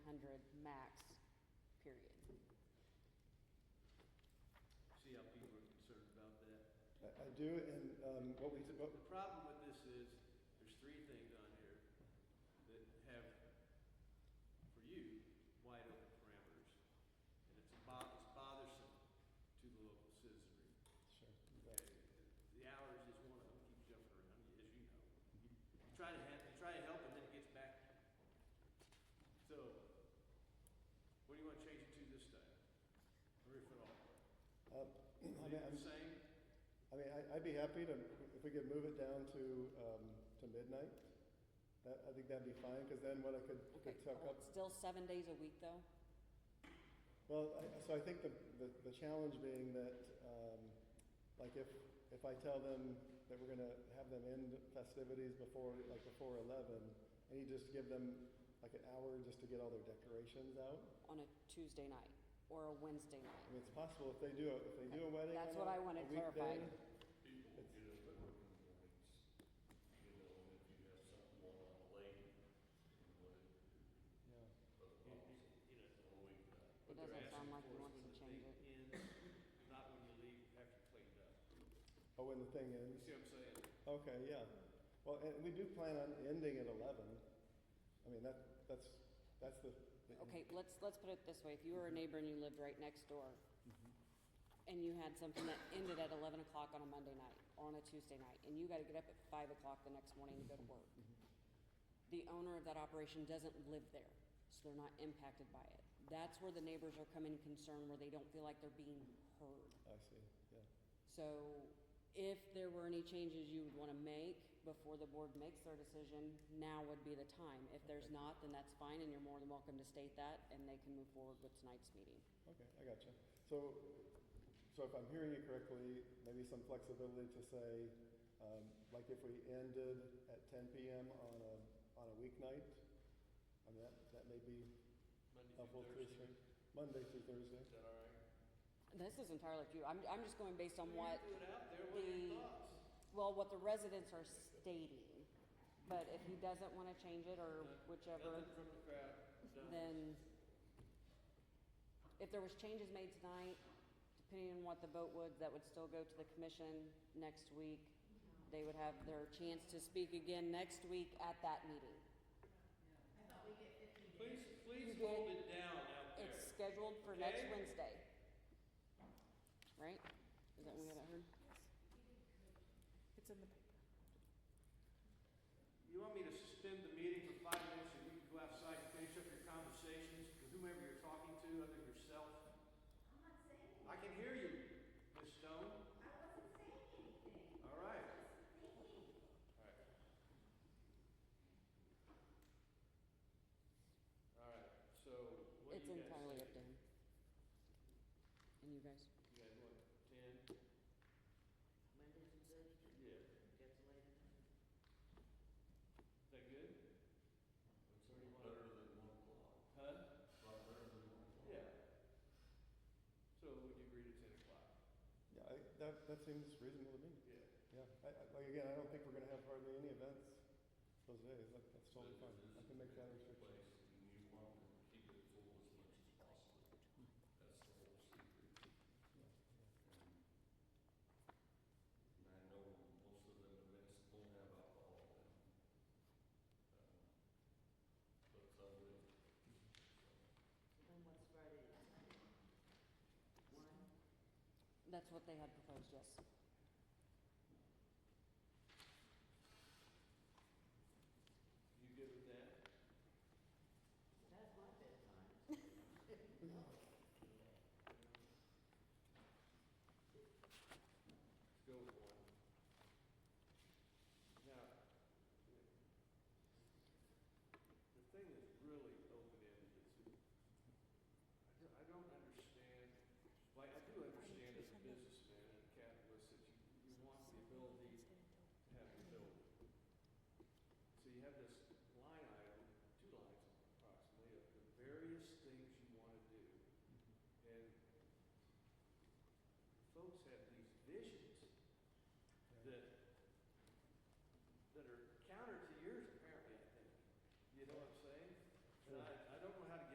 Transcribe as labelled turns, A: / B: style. A: period.
B: CIP were concerned about that.
C: I I do, and um, what we, what-
B: The problem with this is, there's three things on here that have, for you, wide open parameters. And it's bo- it's bothersome to the local citizenry.
C: sure,
B: Okay, The hours is one of them, keep jumping around, as you know. You you try to have, you try to help and then it gets back. So, what do you want to change it to this time? Or if at all?
C: Uh, I mean,
B: Leave it
C: I'm-
B: the same?
C: I mean, I- I'd be happy to, if we could move it down to, um, to midnight. That, I think that'd be fine, because then what I could,
A: Okay,
C: could tuck
A: well,
C: up.
A: it's still seven days a week, though?
C: Well, I, so I think the, the, the challenge being that, um, like if, if I tell them that we're gonna have them end festivities before, like before eleven, I need just to give them like an hour just to get all their decorations out.
A: On a Tuesday night or a Wednesday
C: I
A: night?
C: mean, it's possible if they do, a- if they do a wedding
A: That's
C: on
A: what I
C: a-
A: wanted
C: a weekday,
A: clarified.
D: People get up at work in the mornings, you know, and if you have something going on late, you know,
C: Yeah,
D: it, it, it's a week.
A: It doesn't sound like you want to change it.
B: it. Not when you leave after you cleaned up.
C: oh, when the thing
B: You
C: ends.
B: see what I'm saying?
C: Okay, yeah. Well, and we do plan on ending at eleven. I mean, that, that's, that's the. the-
A: Okay, let's, let's put it this way. If you were a neighbor and you lived right next door,
C: Mm-hmm.
A: and you had something that ended at eleven o'clock on a Monday night or on a Tuesday night, and you gotta get up at five o'clock the next morning to go to work. The owner of that operation doesn't live there, so they're not impacted by it. That's where the neighbors are coming concerned, where they don't feel like they're being heard.
C: I see, yeah.
A: So if there were any changes you would want to make before the board makes their decision, now would be the time. If there's not, then that's fine, and you're more than welcome to state that, and they can move forward with tonight's meeting.
C: Okay, I gotcha. So, so if I'm hearing you correctly, maybe some flexibility to say, um, like if we ended at ten PM on a, on a weeknight? I mean, that, that may be
B: Monday
C: helpful
B: through
C: through
B: Thursday.
C: Monday through Thursday.
B: Is that all right?
A: This is entirely up to you. I'm, I'm just going based on what,
B: You threw it out there, what are your
A: the-
B: thoughts?
A: well, what the residents are stating. But if he doesn't want to change it, or
B: Nothing
A: whichever,
B: from the crowd, done.
A: then if there was changes made tonight, depending on what the vote would, that would still go to the commission next week. They would have their chance to speak again next week at that meeting.
B: Please,
A: You
B: please
A: did-
B: hold it down out there.
A: It's scheduled for next
B: Okay.
A: Wednesday. Right? Is that what we haven't heard?
E: It's in the paper.
B: You want me to suspend the meeting for five minutes and you can go outside and finish up your conversations with whomever you're talking to, other than yourself? I'm not saying. I can hear you, Ms. Stone. I wasn't saying anything. All right. All right. All right, so what
A: It's
B: do you guys?
A: entirely up to
B: think?
A: him. And you guys?
B: You guys want ten?
F: Monday through Thursday,
B: Yeah.
F: that's the latest.
B: Is that good?
D: It's already better than one o'clock,
B: Huh?
D: a lot better than one o'clock.
B: Yeah. So would you agree to ten o'clock?
C: Yeah, I, that, that seems reasonable to me.
B: Yeah.
C: Yeah, I, I, like again, I don't think we're gonna have hardly any events those days. That- That's totally fine. I
D: But if this is
C: can make that
D: a
C: restriction.
D: place and you want to keep it full as much as possible, that's the whole secret. And I know most of them events don't have alcohol in them. Um, But some do.
F: So Then what's Friday? and Saturday? One,
A: That's what they had proposed, yes.
B: You good with that?
F: that's my bedtime.
B: Let's go with one. Now, the thing that's really open-ended is, I don't, I don't understand, like, I do understand as a businessman and a capitalist that you, you want the ability to have the building. So you have this line item, two lines approximately, of the
C: Mm-hmm.
B: various things you want to do. And folks have